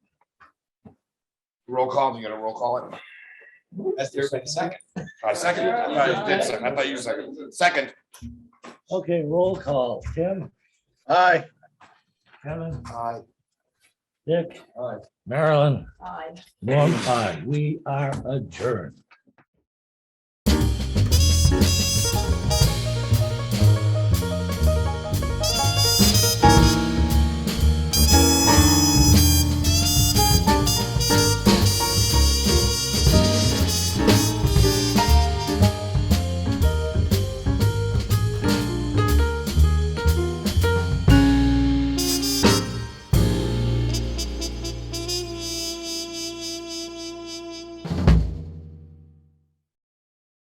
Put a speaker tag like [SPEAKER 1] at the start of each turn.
[SPEAKER 1] Roll call, you gotta roll call it.
[SPEAKER 2] As there's a second.
[SPEAKER 1] I second, it. I thought you did second, I thought you seconded. Second,
[SPEAKER 3] Okay, roll call. Tim,
[SPEAKER 4] Aye.
[SPEAKER 3] Kevin,
[SPEAKER 2] Aye.
[SPEAKER 3] Dick,
[SPEAKER 2] Aye.
[SPEAKER 3] Marilyn,
[SPEAKER 5] Aye.
[SPEAKER 3] Norm, I, we are adjourned.